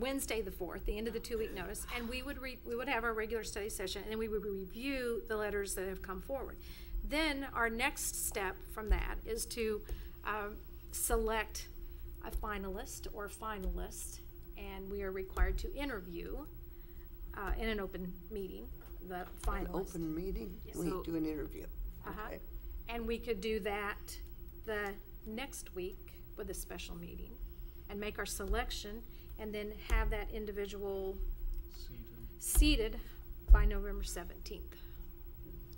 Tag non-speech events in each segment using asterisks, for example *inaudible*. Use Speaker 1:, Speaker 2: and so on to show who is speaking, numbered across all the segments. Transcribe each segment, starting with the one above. Speaker 1: Wednesday, the fourth, the end of the two-week notice, and we would re, we would have our regular study session, and then we would review the letters that have come forward. Then our next step from that is to, um, select a finalist or finalist, and we are required to interview, uh, in an open meeting, the
Speaker 2: An
Speaker 1: finalist.
Speaker 2: open meeting,
Speaker 1: Yes.
Speaker 2: we
Speaker 1: So-
Speaker 2: do an interview.
Speaker 1: Uh-huh.
Speaker 2: Okay.
Speaker 1: And we could do that the next week with a special meeting and make our selection and then have that individual seated by November seventeenth.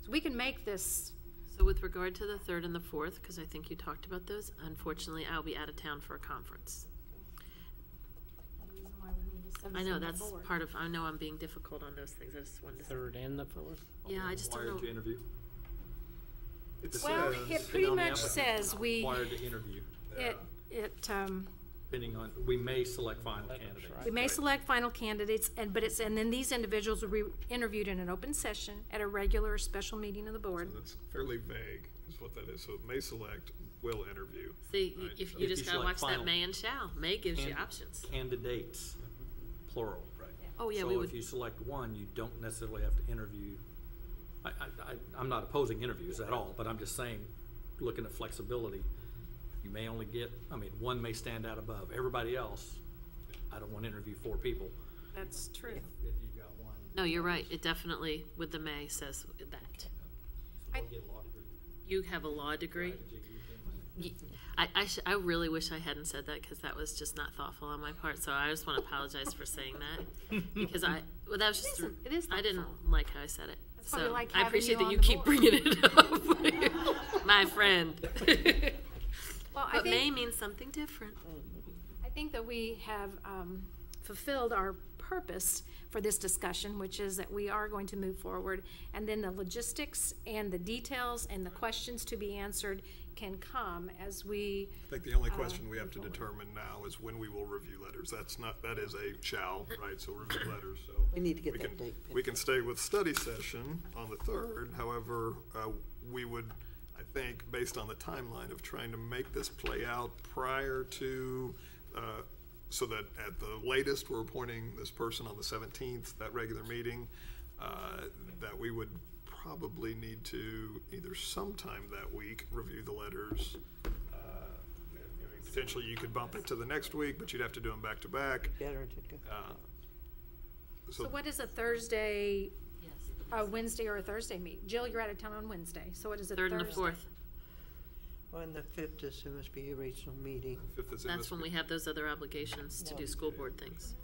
Speaker 1: So we can make this,
Speaker 3: So with regard to the third and the fourth, because I think you talked about those, unfortunately, I'll be out of town for a conference. I know, that's part of, I know I'm being difficult on those things, I just wanted to.
Speaker 4: Third and the fourth?
Speaker 3: Yeah, I just don't
Speaker 5: Wired
Speaker 3: know.
Speaker 5: to interview.
Speaker 1: Well,
Speaker 5: It says-
Speaker 1: it
Speaker 5: depending
Speaker 1: pretty
Speaker 5: on the
Speaker 1: much
Speaker 5: applicant,
Speaker 1: says we,
Speaker 5: Wired to interview,
Speaker 1: it, it, um,
Speaker 5: depending on, we may select final
Speaker 4: That's
Speaker 5: candidates.
Speaker 4: right.
Speaker 1: we may select final candidates and, but it's, and then these individuals will be interviewed in an open session at a regular or special meeting of the board.
Speaker 6: That's fairly vague, is what that is. So it may select, will interview.
Speaker 3: See, y-
Speaker 6: Right,
Speaker 3: if
Speaker 5: so-
Speaker 3: you
Speaker 5: If
Speaker 3: just
Speaker 5: you
Speaker 3: gotta
Speaker 5: select
Speaker 3: watch that
Speaker 5: final.
Speaker 3: may and shall, may gives you
Speaker 5: Can-
Speaker 3: options.
Speaker 5: Candidates, plural. Right.
Speaker 3: Oh, yeah,
Speaker 5: So
Speaker 3: we
Speaker 5: if
Speaker 3: would,
Speaker 5: you select one, you don't necessarily have to interview. I, I, I, I'm not opposing interviews at all, but I'm just saying, looking at flexibility, you may only get, I mean, one may stand out above. Everybody else, I don't want to interview four people.
Speaker 1: That's true.
Speaker 5: If you've got one.
Speaker 3: no, you're right, it definitely, with the may says that.
Speaker 1: I-
Speaker 3: You have a law degree? Ye- I, I, sh- I really wish I hadn't said that because that was just not thoughtful on my part. So I just want to apologize for saying that
Speaker 4: *laughs*
Speaker 3: because I well that was
Speaker 1: It
Speaker 3: just
Speaker 1: isn't- it is
Speaker 3: I didn't
Speaker 1: thoughtful.
Speaker 3: like how I said it.
Speaker 1: That's why we
Speaker 3: So
Speaker 1: like
Speaker 3: I
Speaker 1: having
Speaker 3: appreciate
Speaker 1: you
Speaker 3: that you
Speaker 1: on the
Speaker 3: keep
Speaker 1: board.
Speaker 3: bringing
Speaker 1: *laughs*
Speaker 3: it up, my friend.
Speaker 1: Well, I
Speaker 3: but may
Speaker 1: think,
Speaker 3: means something different.
Speaker 1: I think that we have um, fulfilled our purpose for this discussion, which is that we are going to move forward. And then the logistics and the details and the questions to be answered can come as we,
Speaker 6: I think the only
Speaker 1: Uh,
Speaker 6: question we have to determine now is when we will review letters. That's not, that is a shall, right? So review letters, so.
Speaker 2: We need to get that
Speaker 6: can-
Speaker 2: date
Speaker 6: We can stay with study session on the third. However, uh, we would, I think, based on the timeline of trying to make this play out prior to, uh, so that at the latest, we're appointing this person on the seventeenth, that regular meeting, uh, that we would probably need to either sometime that week, review the letters, uh, I mean, Potentially, you could bump it to the next week, but you'd have to do them back to back.
Speaker 2: Better to go.
Speaker 6: Uh,
Speaker 1: so
Speaker 6: So
Speaker 1: what is a Thursday,
Speaker 3: Yes.
Speaker 1: a Wednesday or a Thursday meet? Jill, you're out of town on Wednesday, so what is a Thursday?
Speaker 3: Third and the fourth.
Speaker 2: On the fifth is MSBA regional meeting.
Speaker 6: fifth is
Speaker 3: That's when we
Speaker 6: MSBA.
Speaker 3: have those other obligations to do school board things.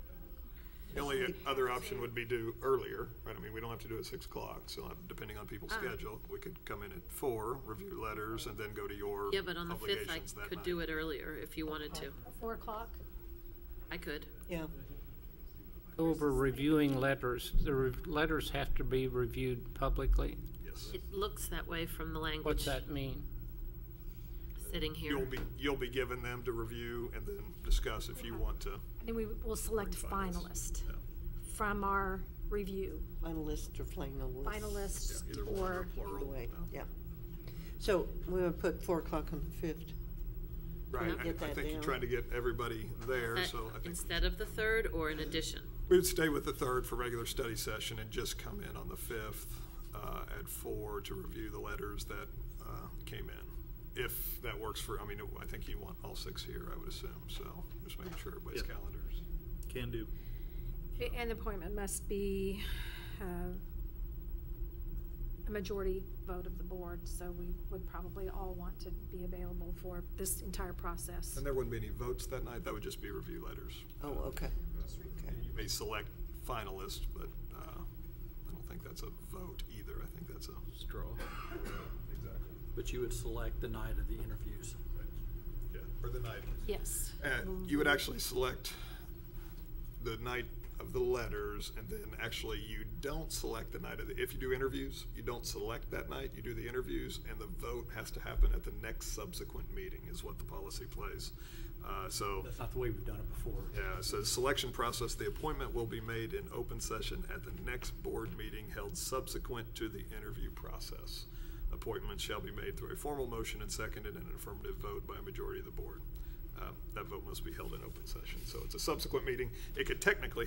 Speaker 6: The only other option would be do earlier, right? I mean, we don't have to do it at six o'clock, so uh, depending on people's
Speaker 3: Uh-huh.
Speaker 6: schedule, we could come in at four, review letters, and then go to your
Speaker 3: Yeah, but on the fifth I
Speaker 6: obligations that
Speaker 3: could
Speaker 6: night.
Speaker 3: do it earlier if you wanted to.
Speaker 1: Four o'clock?
Speaker 3: I could.
Speaker 2: Yeah,
Speaker 6: Mm-hmm.
Speaker 4: Over reviewing letters, the re- letters have to be reviewed publicly.
Speaker 6: Yes.
Speaker 3: It looks that way from the language.
Speaker 4: What's that mean?
Speaker 3: Sitting here.
Speaker 6: You'll be, you'll be given them to review and then discuss if you
Speaker 2: Uh-huh.
Speaker 6: want to.
Speaker 1: Then we will select a finalist
Speaker 6: Yeah.
Speaker 1: from our review,
Speaker 2: finalists or finalists.
Speaker 1: finalists
Speaker 6: Yeah, either one
Speaker 1: or,
Speaker 2: Either
Speaker 6: plural.
Speaker 2: way,
Speaker 6: Yeah.
Speaker 2: yeah. So we're gonna put four o'clock on the fifth.
Speaker 6: Right,
Speaker 3: Get
Speaker 6: I- I
Speaker 2: that
Speaker 6: think you're
Speaker 2: down.
Speaker 6: trying to get everybody there,
Speaker 3: That-
Speaker 6: so I think.
Speaker 3: Uh, Instead of the third or in addition?
Speaker 6: We would stay with the third for regular study session and just come in on the fifth uh, at four to review the letters that uh, came in. If that works for, I mean, I think you want all six here, I would assume, so just making sure everybody's
Speaker 5: Yeah.
Speaker 6: calendars.
Speaker 5: Can do.
Speaker 1: and the appointment must be uh, a majority vote of the board, so we would probably all want to be available for this entire process.
Speaker 6: And there wouldn't be any votes that night, that would just be review letters.
Speaker 2: Oh, okay. Okay.
Speaker 6: And You may select finalists, but uh, I don't think that's a vote either, I think that's a.
Speaker 5: Straw.
Speaker 6: Exactly.
Speaker 5: But you would select the night of the interviews.
Speaker 6: Yeah, or the night.
Speaker 1: Yes.
Speaker 6: Uh, You would actually select the night of the letters, and then actually you don't select the night of the, if you do interviews, you don't select that night, you do the interviews, and the vote has to happen at the next subsequent meeting is what the policy plays. Uh, So,
Speaker 5: That's not the way we've done it before.
Speaker 6: yeah, so the selection process, the appointment will be made in open session at the next board meeting held subsequent to the interview process. Appointments shall be made through a formal motion and seconded and an affirmative vote by a majority of the board. um, that vote must be held in open session. So it's a subsequent meeting. It could technically